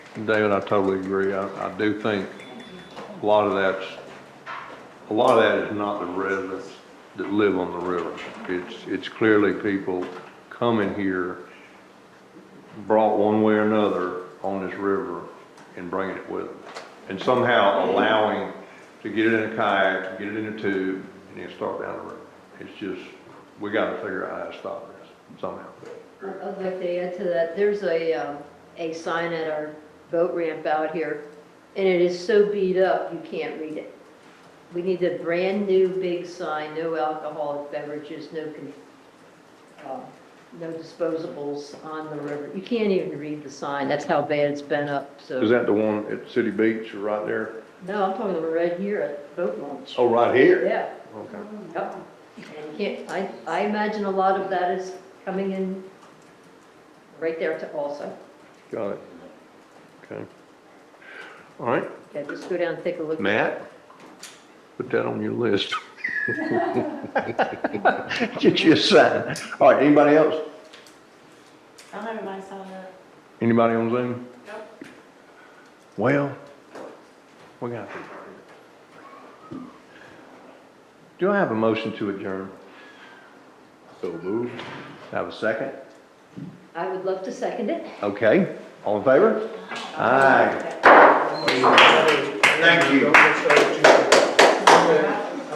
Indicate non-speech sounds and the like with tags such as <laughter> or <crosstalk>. David, I totally agree. I, I do think a lot of that's, a lot of that is not the residents that live on the river. It's, it's clearly people coming here, brought one way or another on this river and bringing it with them. And somehow allowing to get it in a kayak, get it in a tube, and then start down the river. It's just, we gotta figure out how to stop this somehow. I- I'd like to add to that, there's a, um, a sign at our boat ramp out here, and it is so beat up, you can't read it. We need a brand-new big sign, no alcoholic beverages, no, con- um, no disposables on the river. You can't even read the sign, that's how bad it's been up, Is so. that the one at City Beach, right there? No, I'm talking about right here at boat launch. Oh, right here? Yeah, Okay. yep. And you can't, I, I imagine a lot of that is coming in right there to also. Got it. Okay. All right, Okay, just go down and take a look. Matt, put that on your list. <laughs> Get you a sign. All right, anybody else? Not everybody signed up. Anybody on Zoom? Nope. Well, we got to. Do I have a motion to adjourn? So moved. Have a second? I would love to second it. Okay, all in favor? Aye. Thank you. Thank you.